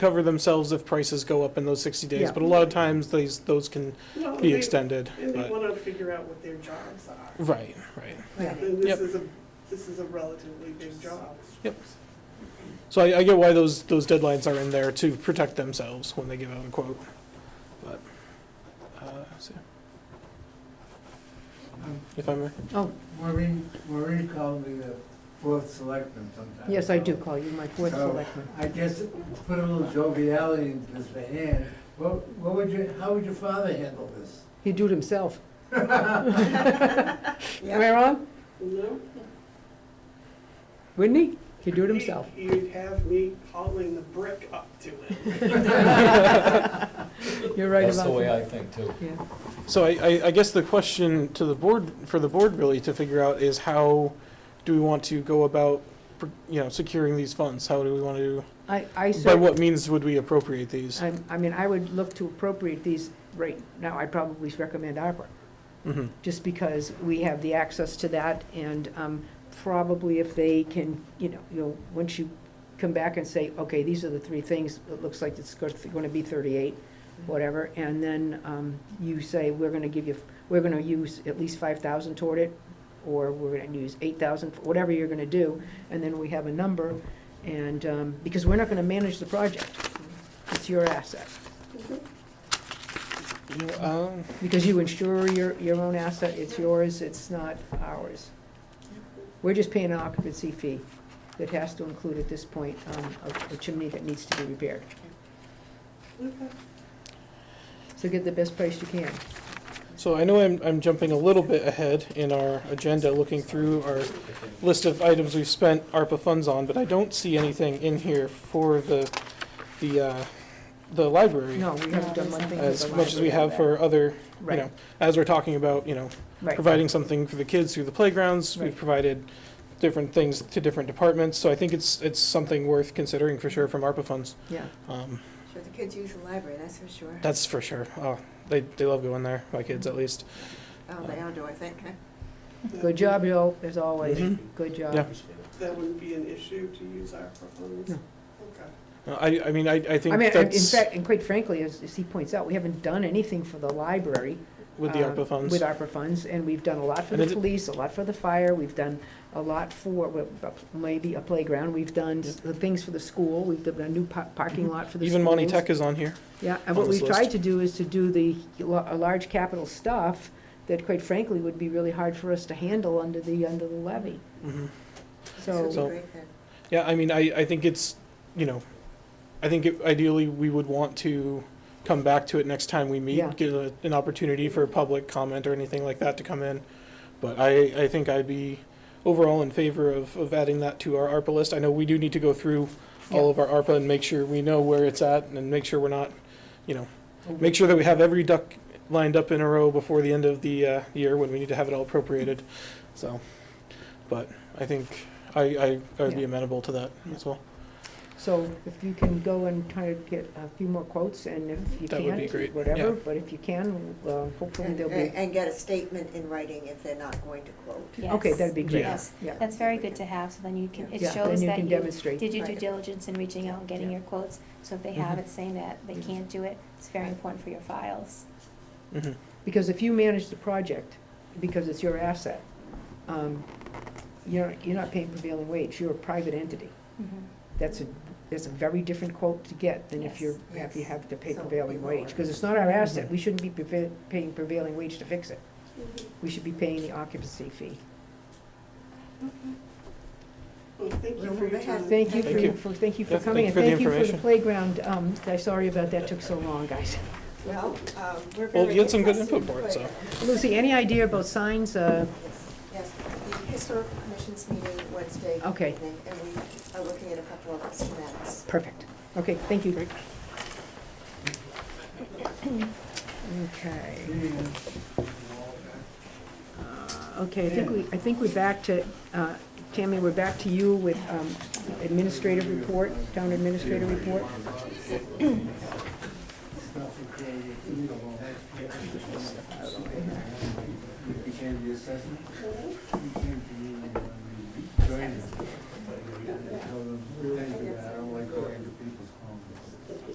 cover themselves if prices go up in those sixty days, Yeah. but a lot of times these, those can No, be they- extended, And they but, want to figure out what their jobs are. right, right. Like, Yeah. This Yep. is a, this is a relatively big job. Yep. So I, I get why those, those deadlines are in there to protect themselves when they give out a quote, but, uh, so. If I may, Oh, Maureen, Maureen called me the fourth selectman sometimes. yes, I do call you my fourth So- selectman. I guess to put a little joviality into this hand, what, what would you, how would your father handle this? He do it himself. Am I wrong? No? Wouldn't he? He do it himself. You'd- You'd have me hauling the brick up to it. You're right That's about the way that. I think too. Yeah. so I, I, I guess the question to the board, for the board really to figure out is how do we want to go about, you know, securing these funds? How do we want to, I, I by certainly, what means would we appropriate these? I, I mean, I would look to appropriate these right now. I'd probably recommend ARPA, Mhm. just because we have the access to that and, um, probably if they can, you know, you'll, once you come back and say, okay, these are the three things, it looks like it's gonna be thirty-eight, whatever, and then, um, you say, we're gonna give you, we're gonna use at least five thousand toward it, or we're gonna use eight thousand, whatever you're gonna do, and then we have a number, and, um, because we're not gonna manage the project. It's your asset, Mm-hmm. You know, um, because you insure your, your own asset, it's yours, it's not ours. We're just paying an occupancy fee that has to include at this point, um, a- a chimney that needs to be repaired. Okay. So get the best price you can. So I know I'm, I'm jumping a little bit ahead in our agenda, looking through our list of items we've spent ARPA funds on, but I don't see anything in here for the, the, uh, the library No, we haven't done one thing. for as the much as we library. have for other, you Right, know, as we're talking about, you know, right. providing something for the kids through the playgrounds. We've Right. provided different things to different departments, so I think it's, it's something worth considering for sure from ARPA funds. Yeah, Um, Sure, the kids use the library, that's for sure. that's for sure. Oh, they, they love going there, my kids at least. Oh, they all do, I think, huh? good job, Joe, as always, Mhm. good job. Yeah. That wouldn't be an issue to use our funds? No. Okay. Uh, I, I mean, I, I think I mean, that's. I- in fact, and quite frankly, as, as he points out, we haven't done anything for the library. With the uh, ARPA funds? With ARPA funds, and we've done a lot for And the it- police, a lot for the fire, we've done a lot for, well, a- maybe a playground, we've done s- the things for the school, we've done a new pa- parking lot for the schools. Even Monty Tech is on here. Yeah, and on what this we've tried list. to do is to do the, la- a large capital stuff that quite frankly would be really hard for us to handle under the, under the levy, This so, would So- be great then. Yeah, I mean, I, I think it's, you know, I think it- ideally, we would want to come back to it next time we Yeah. meet, give a- an opportunity for public comment or anything like that to come in. But I, I think I'd be overall in favor of, of adding that to our ARPA list. I know we do need to go through all of our ARPA and make sure we know where it's at and make sure we're not, you know, make sure that we have every duck lined up in a row before the end of the, uh, year when we need to have it all appropriated, so. But I think I, I, I would be Yeah. amenable to that as well. so if you can go and try to get a few more quotes, and if you That would be can't, great, whatever, yeah. but if you can, uh, hopefully And, there'll be, and get a statement in writing if they're not going to quote. uh, Yes. okay, that'd be great, Yeah. Yes. yeah. That's very good to have, so then you can, it Yeah, then shows that can you demonstrate. did your due Right. diligence in reaching out and getting Yeah. Mm-hmm. your quotes. So if they have Mhm. it saying that they Mhm. can't do it, it's very Right. important for your files. Mhm. Because if you manage the project, because it's your asset, um, you're, you're not paying prevailing wage, you're a private entity. Mhm. That's a, that's a very different quote to get than if you're, if you Yes. have to pay So prevailing we wage. lower. Because it's not our asset, Mhm. we shouldn't be preva- paying prevailing wage to fix it. Mm-hmm. We should be paying the occupancy fee. Well, thank you We'll for your move ahead. time. Thank you Thank you. for, for- thank you Yeah, thank for coming, you and for the thank you for the information. playground. Um, I'm sorry about that took so long, guys. Well, um, we're very. Well, you had some good interested input for it, so. Lucy, any idea about signs? Uh, Yes, the historical commission's meeting Wednesday Okay. evening, and we are looking at a couple of schematics. Perfect. Okay, thank you. Okay. Uh, Okay, I think we, I think we're back to, uh, Tammy, we're back to you with um, administrative report, town administrator report. You came to the assessment? You came to the, uh, join us.